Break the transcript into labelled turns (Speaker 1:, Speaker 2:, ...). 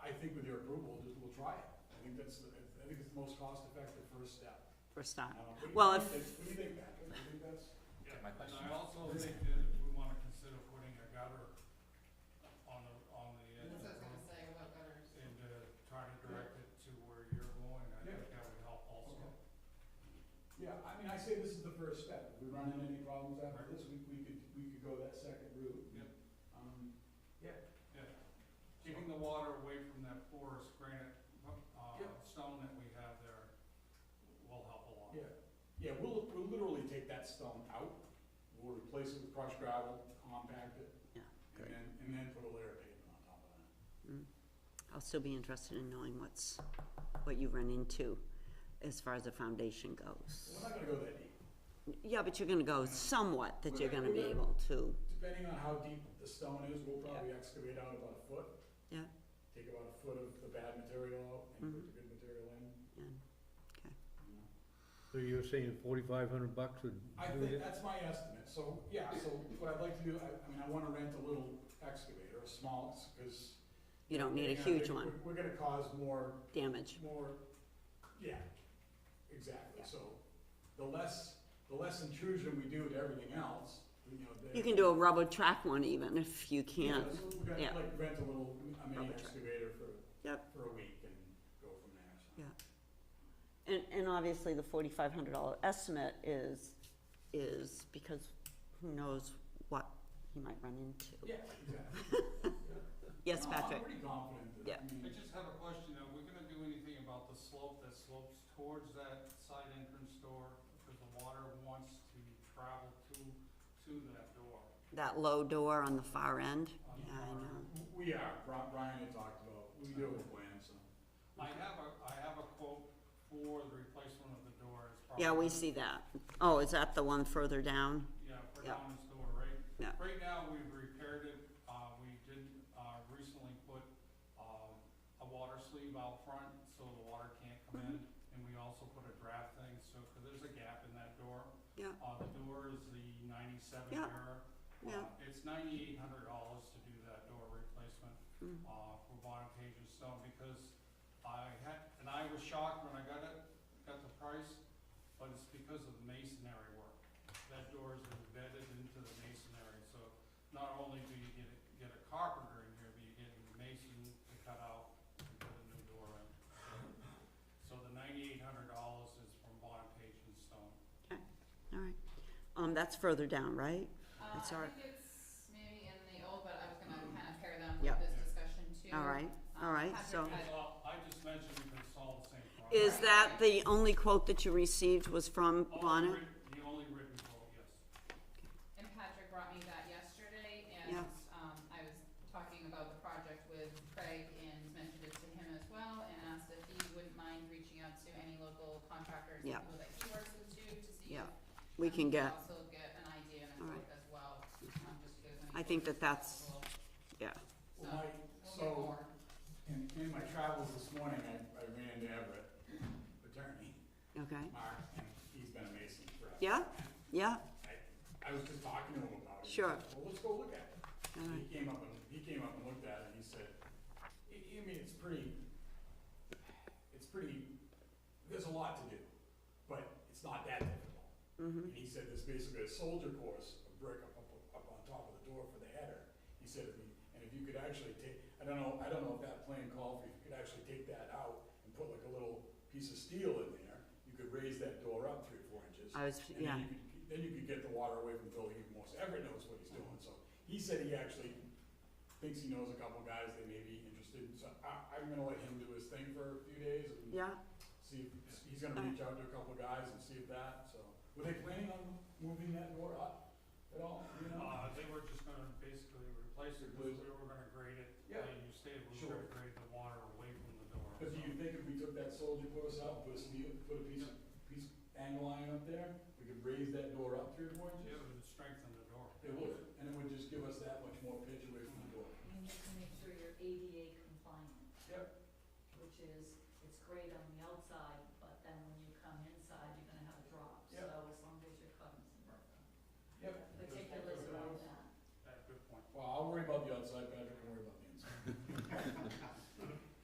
Speaker 1: think with your approval, we'll just, we'll try it. I think that's, the- I think it's the most cost-effective first step.
Speaker 2: first time.
Speaker 1: Uh, what do you
Speaker 2: Well,
Speaker 1: think?
Speaker 2: if-
Speaker 1: It's- What do you think, Patrick? Do you think that's?
Speaker 3: Yeah,
Speaker 4: my
Speaker 3: and
Speaker 4: question
Speaker 3: I
Speaker 4: is-
Speaker 3: also think that if we wanna consider putting a gutter on the, on the edge of the
Speaker 5: That's what I was
Speaker 3: road
Speaker 5: gonna say about gutters.
Speaker 3: and, uh, try to direct it to where you're going, I think that would help also.
Speaker 1: Okay. Yeah, I mean, I say this is the first step. If we run into any problems after this, we, we could, we could go that second route.
Speaker 3: Yep.
Speaker 1: Um,
Speaker 3: Keeping the water away from that porous granite, uh,
Speaker 1: Yep.
Speaker 3: stone that we have there will help a lot.
Speaker 1: yeah, yeah, we'll, we'll literally take that stone out. We'll replace it with crushed gravel, compact it.
Speaker 2: Yeah,
Speaker 1: And
Speaker 2: good.
Speaker 1: then, and then put a layer of pavement on top of that.
Speaker 2: I'll still be interested in knowing what's, what you run into as far as the foundation goes.
Speaker 1: We're not gonna go that deep.
Speaker 2: Yeah, but you're gonna go somewhat, that you're gonna be able to,
Speaker 1: Depending on how deep the stone is, we'll probably excavate out about a foot,
Speaker 2: yeah,
Speaker 1: take about a foot of the bad material out and put
Speaker 2: Mhm.
Speaker 1: the good material in.
Speaker 2: yeah.
Speaker 1: you know.
Speaker 6: So you're saying forty-five hundred bucks would
Speaker 1: I
Speaker 6: do
Speaker 1: think,
Speaker 6: it?
Speaker 1: that's my estimate, so, yeah, so what I'd like to do, I, I mean, I wanna rent a little excavator, a small, cause.
Speaker 2: You don't need a
Speaker 1: you know,
Speaker 2: huge
Speaker 1: we're-
Speaker 2: one,
Speaker 1: We're gonna cause more,
Speaker 2: damage,
Speaker 1: more, yeah, exactly,
Speaker 2: Yeah.
Speaker 1: so, the less, the less intrusion we do to everything else, you know, the.
Speaker 2: you can do a rubber track one even if you
Speaker 1: Yeah,
Speaker 2: can't,
Speaker 1: so We're gonna
Speaker 2: yeah.
Speaker 1: like rent a little, a mini
Speaker 2: Rubber truck.
Speaker 1: excavator for,
Speaker 2: Yep.
Speaker 1: for a week and go from there, so.
Speaker 2: Yeah. And, and obviously, the forty-five hundred dollar estimate is, is because who knows what he might run into.
Speaker 1: Yeah, exactly.
Speaker 2: Yes,
Speaker 1: No, I'm
Speaker 2: Patrick?
Speaker 1: pretty confident that, I
Speaker 2: Yeah.
Speaker 3: I
Speaker 1: mean,
Speaker 3: just have a question, are we gonna do anything about the slope that slopes towards that side entrance door? Because the water wants to travel to, to that door.
Speaker 2: That low door on the far end?
Speaker 3: on
Speaker 2: Yeah,
Speaker 3: the
Speaker 2: I
Speaker 3: far end.
Speaker 2: know.
Speaker 1: w- we are, Bri- Brian had talked about, we do have a plan, so.
Speaker 3: I have a, I have a quote for the replacement of the door, it's probably.
Speaker 2: Yeah, we see that. Oh, is that the one further down?
Speaker 3: Yeah, for
Speaker 2: Yeah.
Speaker 3: Donna's door, right?
Speaker 2: Yeah.
Speaker 3: Right now, we've repaired it, uh, we did, uh, recently put, um, a water sleeve out front, so the water can't come in.
Speaker 2: Mm-hmm.
Speaker 3: And we also put a draft thing, so, cause there's a gap in that door.
Speaker 2: Yeah.
Speaker 3: Uh, the door is the ninety-seven
Speaker 2: Yeah.
Speaker 3: era.
Speaker 2: Yeah.
Speaker 3: Uh, It's ninety-eight hundred dollars to do that door replacement,
Speaker 2: Mm.
Speaker 3: uh, for Bonoccasion Stone, because I had, and I was shocked when I got it, got the price, but it's because of the masonry work. That door is embedded into the masonry, so not only do you get, a- get a carpenter in here, but you're getting the mason to cut out and put a new door in. So the ninety-eight hundred dollars is from Bonoccasion Stone.
Speaker 2: All right. Um, that's further down, right?
Speaker 5: Uh,
Speaker 2: It's our-
Speaker 5: I think it's maybe in the old, but I was gonna kinda pair them
Speaker 2: Yeah.
Speaker 5: with this discussion too. Um,
Speaker 2: All right, all right, so.
Speaker 3: It's all, I just mentioned because it's all the same product.
Speaker 2: Is that the only quote that you received was from
Speaker 3: All
Speaker 2: Bonnet?
Speaker 3: writ- The only written quote, yes.
Speaker 5: And Patrick brought me that yesterday
Speaker 2: Yeah.
Speaker 5: and, um, I was talking about the project with Craig and mentioned it to him as well and asked if he wouldn't mind reaching out to any local contractors and
Speaker 2: Yeah.
Speaker 5: people that he works with too to see.
Speaker 2: Yeah.
Speaker 5: if,
Speaker 2: We
Speaker 5: um,
Speaker 2: can
Speaker 5: he
Speaker 2: get,
Speaker 5: Also get an idea and a
Speaker 2: All right.
Speaker 5: quote as well, um, just because. when
Speaker 2: I
Speaker 5: he
Speaker 2: think
Speaker 5: goes
Speaker 2: that that's-
Speaker 5: to
Speaker 2: yeah,
Speaker 1: Well, my,
Speaker 5: the school, We'll get
Speaker 1: so,
Speaker 5: more.
Speaker 1: in, in my travels this morning, I, I ran into Everett, attorney,
Speaker 2: okay.
Speaker 1: Mark, and he's been a mason forever.
Speaker 2: Yeah, yeah,
Speaker 1: I, I was just talking to him about it. He
Speaker 2: Sure.
Speaker 1: said, Well, let's go look at it.
Speaker 2: all
Speaker 1: And
Speaker 2: right,
Speaker 1: He came up and, he came up and looked at it and he said, I, I mean, it's pretty, it's pretty, there's a lot to do, but it's not that difficult.
Speaker 2: mhm,
Speaker 1: And he said there's basically a soldier course, a brick up, up, up on top of the door for the header. He said, if you- and if you could actually take, I don't know, I don't know if that plan called for, if you could actually take that out and put like a little piece of steel in there, you could raise that door up three, or four inches.
Speaker 2: I was,
Speaker 1: And
Speaker 2: yeah,
Speaker 1: then you could, then you could get the water away from the building even more, so everyone knows what he's doing, so he said he actually thinks he knows a couple guys that may be interested, so I, I'm gonna let him do his thing for a few days and
Speaker 2: yeah, Uh-huh.
Speaker 1: see if, he's gonna reach out to a couple guys and see if that, so, were they planning on moving that door up at all, you know?
Speaker 3: Uh, they were just gonna basically replace it, because we were gonna grade it,
Speaker 1: Yeah.
Speaker 3: and you stated we were
Speaker 1: Sure.
Speaker 3: gonna grade the water away from the door.
Speaker 1: Cause
Speaker 3: so-
Speaker 1: you think if we took that soldier course out, put a steel, put a piece, piece angle iron up there, we could raise that door up three or four
Speaker 3: It
Speaker 1: inches?
Speaker 3: would strengthen the door.
Speaker 1: It would, and it would just give us that much more pitch away from the door.
Speaker 7: You need to make sure you're ADA compliant,
Speaker 1: Yep.
Speaker 7: which is, it's great on the outside,